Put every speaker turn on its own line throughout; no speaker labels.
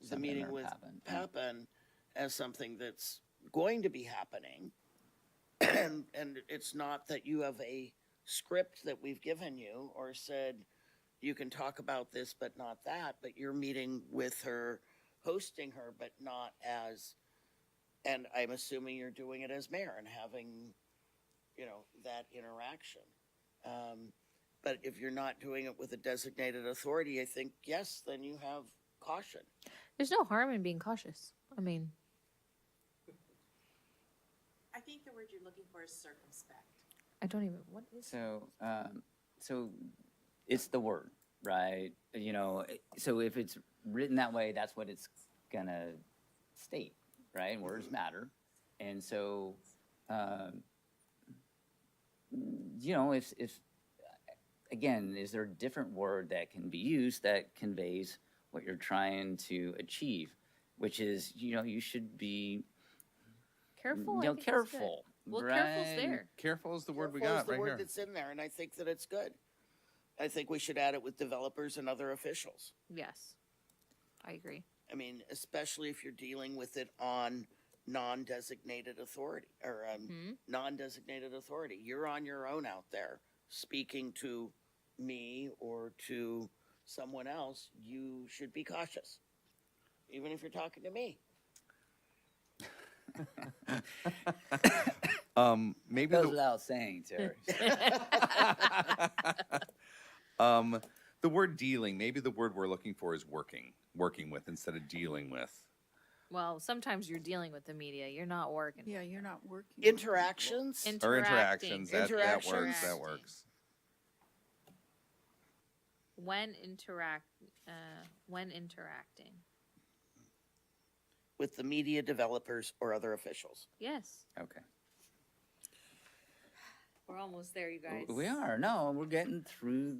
the
something
meeting
or
with
happen.
Pappen as something that's going to be happening. And, and it's not that you have a script that we've given you or said, you can talk about this, but not that, but you're meeting with her, hosting her, but not as, and I'm assuming you're doing it as mayor and having, you know, that interaction. Um, but if you're not doing it with a designated authority, I think, yes, then you have caution.
There's no harm in being cautious. I mean,
I think the word you're looking for is circumspect.
I don't even. What is?
So, um, so it's the word, right? You know, so if it's written that way, that's what it's gonna state, right? And
Mm-hmm.
Words matter, and so, um, you know, if if again, is there a different word that can be used that conveys what you're trying to achieve? Which is, you know, you should be
Careful.
you
I
know,
think is good.
careful.
Well, careful's
right?
there.
Careful is the word we
Careful is
got right
The
here.
word that's in there, and I think that it's good. I think we should add it with developers and other officials.
Yes, I agree.
I mean, especially if you're dealing with it on non-designated authority or um,
Hmm?
non-designated authority. You're on your own out there speaking to me or to someone else. You should be cautious, even if you're talking to me.
Um, maybe
Goes
the,
without saying, Terry.
um, the word dealing, maybe the word we're looking for is working, working with instead of dealing with.
Well, sometimes you're dealing with the media. You're not working.
Yeah, you're not working. with people.
Interactions.
Or
Interacting.
interactions, that, that works, that
Interactions.
works.
When interact. Uh, when interacting.
with the media developers or other officials.
Yes,
okay.
we're almost there, you guys.
We are. No, we're getting through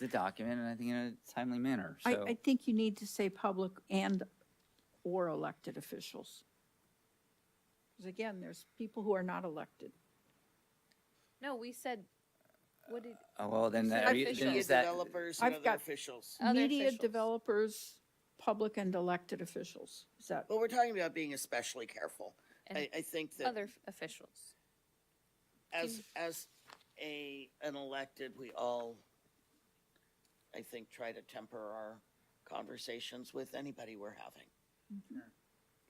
the document, and I think in a timely manner.
I,
So,
I think you need to say public and or elected officials. Because again, there's people who are not elected.
No, we said. What did?
oh, well, then,
You said
that, are you,
official.
then
Media
is that
developers and
I've
other
got-
officials.
Other
Media
officials.
developers, public and elected officials. Is that,
But we're talking about being especially careful. I,
And
I think
uh,
that
Other f- officials.
as as a an elected, we all I think try to temper our conversations with anybody we're having.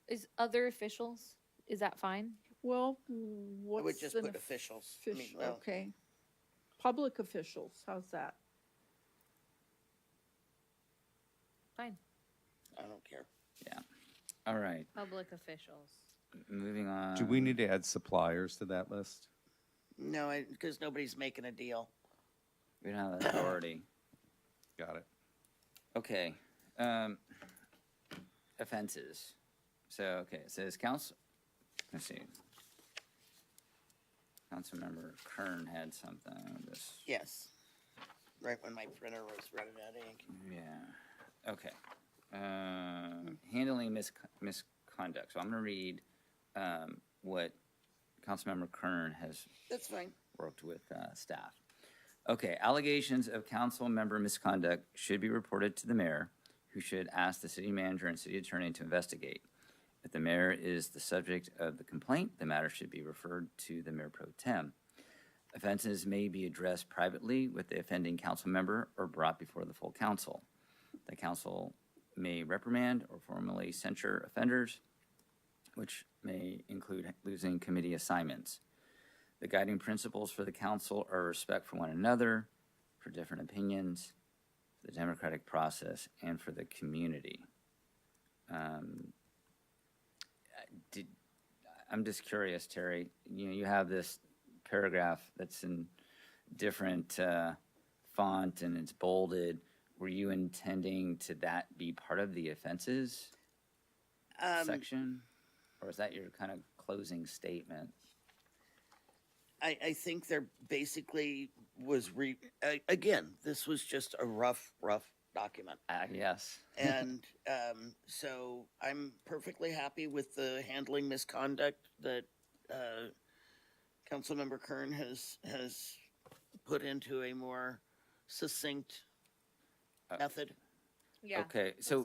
Is other officials? Is that fine?
well,
I would
what's
just
an
put officials. I mean,
official?
well,
Okay. Public officials, how's that?
Fine.
I don't care.
all right.
Public officials.
Moving on.
Do we need to add suppliers to that list?
No, because nobody's making a deal.
We don't have authority.
Got it.
Okay. Um, offenses. So, okay, it says council, let's see. Councilmember Kern had something on this.
Yes. Right when my printer was running out of ink.
Yeah, okay. Uh, handling mis- misconduct. So I'm gonna read, um, what Councilmember Kern has
That's fine.
worked with uh, staff. Okay, allegations of council member misconduct should be reported to the mayor, who should ask the city manager and city attorney to investigate. If the mayor is the subject of the complaint, the matter should be referred to the mayor pro tem. Offenses may be addressed privately with the offending council member or brought before the full council. The council may reprimand or formally censure offenders, which may include losing committee assignments. The guiding principles for the council are respect for one another, for different opinions, for the democratic process, and for the community. Um, I- Did, I'm just curious, Terry, you know, you have this paragraph that's in different uh, font and it's bolded. Were you intending to that be part of the offenses
Um,
section? Or is that your kind of closing statement?
I, I think there basically was re, I- again, this was just a rough, rough document.
Uh, Yes.
And um, so I'm perfectly happy with the handling misconduct that uh, Councilmember Kern has, has put into a more succinct
Uh,
method.
Yeah.
Okay, so